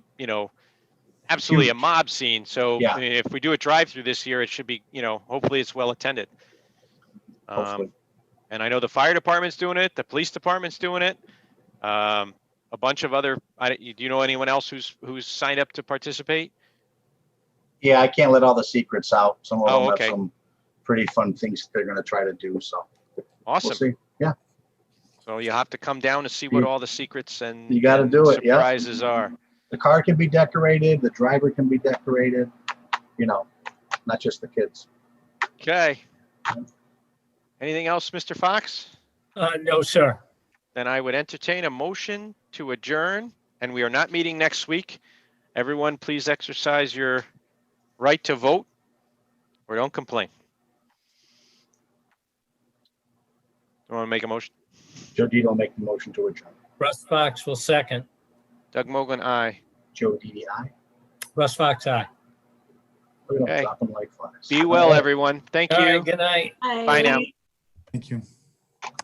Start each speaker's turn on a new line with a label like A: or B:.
A: you know, absolutely a mob scene. So
B: Yeah.
A: I mean, if we do a drive-through this year, it should be, you know, hopefully it's well attended.
B: Hopefully.
A: Um, and I know the fire department's doing it, the police department's doing it. Um, a bunch of other, I, do you know anyone else who's, who's signed up to participate?
B: Yeah, I can't let all the secrets out. Some of
A: Oh,
B: them have
A: okay.
B: some pretty fun things they're gonna try to do, so we'll
A: Awesome.
B: see.
A: So you'll have to come down and see what
B: You-
A: all the secrets and.
B: you gotta
A: and
B: do it, yeah.
A: Surprises are.
B: The car can be decorated, the driver can be decorated, you know, not just the kids.
A: Okay. Anything else, Mr. Fox?
C: Uh, no, sir.
A: Then I would entertain a motion to adjourn, and we are not meeting next week. Everyone, please exercise your right to vote or don't complain. You want to make a motion?
B: Joe Didi make the motion to adjourn.
C: Russ Fox will second.
A: Doug Mogul, aye.
B: Joe Didi, aye.
C: Russ Fox, aye.
B: We don't
A: Okay.
B: drop 'em like flies.
A: Be well, everyone. Thank
C: All right,
A: you.
C: good night.
A: Bye now.
D: Thank you.